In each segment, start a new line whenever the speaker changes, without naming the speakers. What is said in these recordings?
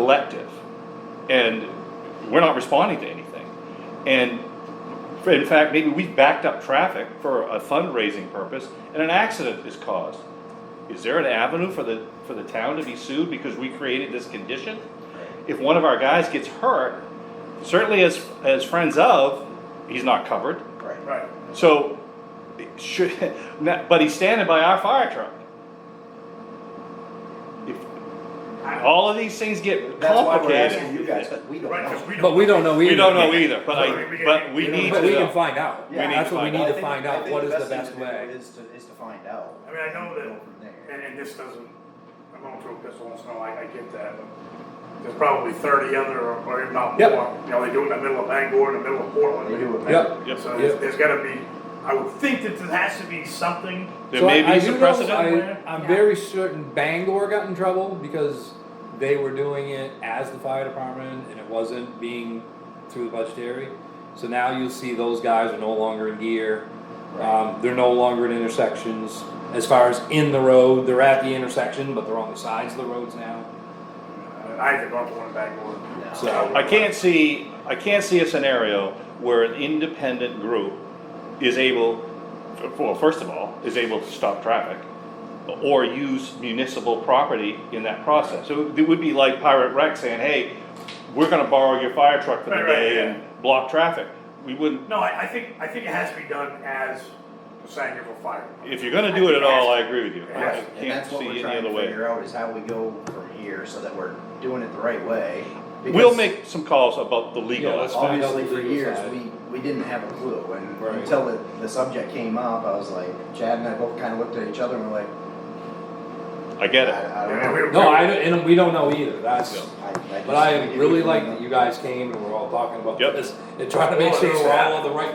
elective, and we're not responding to anything. And in fact, maybe we've backed up traffic for a fundraising purpose, and an accident is caused. Is there an avenue for the, for the town to be sued because we created this condition? If one of our guys gets hurt, certainly as, as friends of, he's not covered.
Right.
Right.
So, should, not- but he's standing by our fire truck. If All of these things get
That's why we're asking
complicated.
you guys, because we don't
Right, 'cause
know.
we don't.
But we don't know either.
We don't know either, but
Right, we
I,
can-
but we
we don't
need
But
to
we can
know.
find out.
We need
That's
to
what we
find
need
out.
to
I think-
find
I
out
think
what is the
thing
best
to do
way.
Is to, is to find out.
I mean, I
Go
know that,
from
and,
there.
and this doesn't, I'm going through this once in a while, I get that, but there's probably thirty other, or- or if not
Yep.
more. You know, they do it in the middle of Bangor, in the middle of Portland.
They do it.
Yep.
Yep.
So there's,
Yep.
there's gotta be, I would think that there has to be something.
There
So
may
I- I
be
do
some
know-
precedent.
I- I'm
Yeah.
very certain Bangor got in trouble because they were doing it as the fire department and it wasn't being through the budgetary. So now you'll see those guys are no longer in gear. Um, they're no longer at intersections. As far as in the road, they're at the intersection, but they're on the sides of the roads now.
I haven't gone to one in Bangor.
No.
So-
I can't see, I can't see a scenario where an independent group is able, well, first of all, is able to stop traffic or use municipal property in that process. So it would be like Pirate Rec saying, hey, we're gonna borrow your fire truck for the
Right, right,
day
yeah.
and block traffic. We wouldn't,
No, I, I think, I think it has to be done as the Sangerville Fire. Department.
if you're gonna do it at all, I agree with you. I
Yes.
And
can't
that's what
see
we're
any
trying
other
to
way.
figure out is how we go from here so that we're doing it the right way.
We'll
Because
make some calls about the legal aspect.
Yeah, let's find out
Obviously,
the
for
legal
years,
side.
we, we didn't have a clue and
Right.
until the, the subject came up, I was like, Chad and I both kind of looked at each other and we're like,
I get it.
I, I don't
Yeah,
know.
we-
No, I, don't- and we don't know either. That's,
I- just-
But I really like that you guys came and we're all talking about
Yep.
this and trying to make
Well,
sure
it's
we're all
happening.
on the right,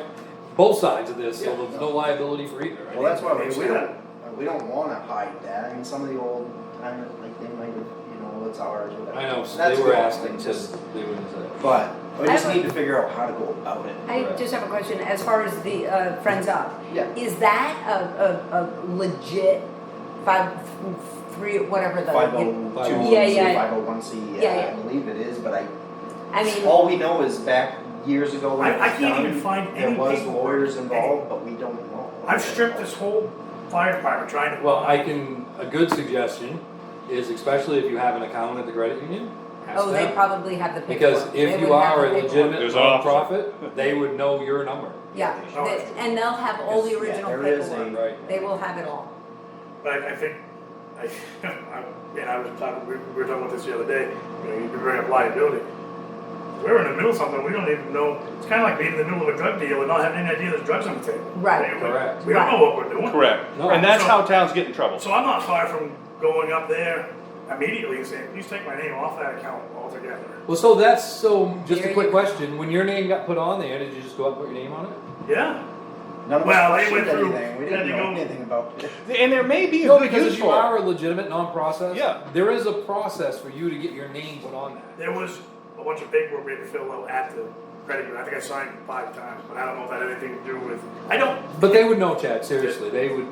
both sides of this, so
Yeah.
there's no liability for either. right?
Well, that's why we, we don't, we don't wanna hide that, I mean, some of the old timers, like, they might have, you know, it's ours, whatever.
I know, so
That's
they were
cool.
asking to,
Just,
they wouldn't say.
but, we
I
just
would-
need to figure out how to go about it.
I just have a question, as far as the uh, Friends Up.
Yeah.
Is that a, a, a legit five, three, whatever the.
Five oh two,
Yeah, yeah.
five oh one C,
Yeah,
I
yeah.
believe it is, but I
I mean.
All we know is back years ago when
I-
it
I
was
can't
done,
even find
there
any
was
paperwork,
lawyers
any-
involved, but we don't know.
I've stripped this whole fire department trying to.
Well, I can, a good suggestion is especially if you have an account at the credit union, ask
Oh, they
them.
probably have the paperwork.
Because
They
if you
would have
are
the
a
paperwork.
legitimate
There's an officer.
nonprofit, they would know your number.
Yeah,
Oh,
they-
it's-
and they'll have all the
Yeah,
original
there is a-
paperwork. They will have it all.
But I, I think, I, I- and I was talking, we, we were talking about this the other day, you know, you can bring up liability. We're in the middle of something, we don't even know, it's kinda like being in the middle of a drug deal and not having any idea there's drugs on the table.
Right.
We-
Correct.
We don't know what we're doing.
Correct.
No.
And that's how towns get in trouble.
So I'm not far from going up there immediately and saying, please take my name off that account altogether.
Well, so that's, so, just
There
a
you
quick
go.
question, when your name got put on there, did you just go up and put your name on it?
Yeah,
None of
Well,
us
they went
questioned
through-
anything. We
had
didn't
to
know
go-
anything about it.
And there may be a
No,
good
because
use
if you
for it.
are a legitimate non-process,
Yeah.
there is a process for you to get your name put on that.
there was a bunch of paperwork we had to fill out at the credit union, I think I signed five times, but I don't know if that had anything to do with, I don't,
But they would know, Chad. Seriously, they would.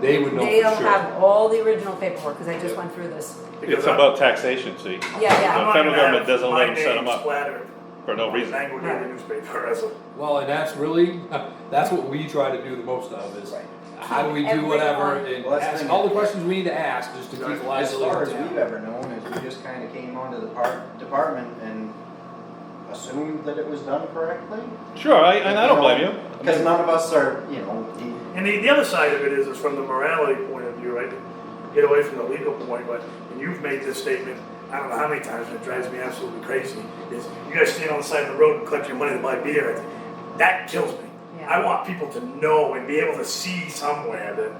They would know
They'll
for sure.
have all the original paperwork, because I just
Yeah.
went through this.
because
It's
I'm.
about taxation, see,
Yeah,
I'm
yeah.
not
federal
gonna
government
have
doesn't let
my
them set 'em
name
up.
splattered
for no reason.
Language in the newspaper as a.
well, and that's really that's what we try to do the most of is
Right.
how do we do
Everyone-
whatever and
Well, that's the
ask
thing.
all the questions we need to ask just to keep
Right.
As
liability
far as
down.
we've ever known is we just kind of came onto the par- department and assumed that it was done correctly.
Sure, I, and I don't blame you.
Because none of us are, you know, the-
And the, the other side of it is, is from the morality point of view, right? Get away from the legal point, but and you've made this statement, I don't know how many times, and it drives me absolutely crazy, is you guys stand on the side of the road and collect your money to buy beer. That kills me.
Yeah.
I want people to know and be able to see somewhere that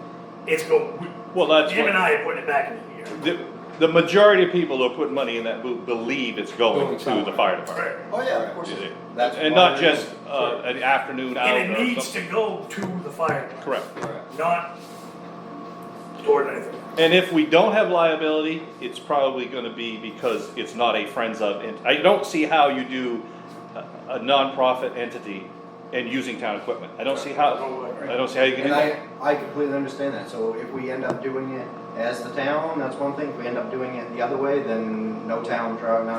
it's go, we-
Well, that's
Jim and
what,
I are putting it back in here.
the, the majority of people who put money in that booth believe it's going
Going
to
somewhere.
the fire department.
oh yeah, of course.
You see.
That's
And
why
not
we-
just, uh, an afternoon out
And it
or
needs to
something.
go to the fire. department,
Correct.
Correct.
Not toward anything.
And if we don't have liability, it's probably gonna be because it's not a friends of, ent- I don't see how you do a, a nonprofit entity and using town equipment. I don't see how, I don't see how you can do
And
that.
I, I completely understand that, so if we end up doing it as the town, that's one thing, if we end up doing it the other way, then no town, no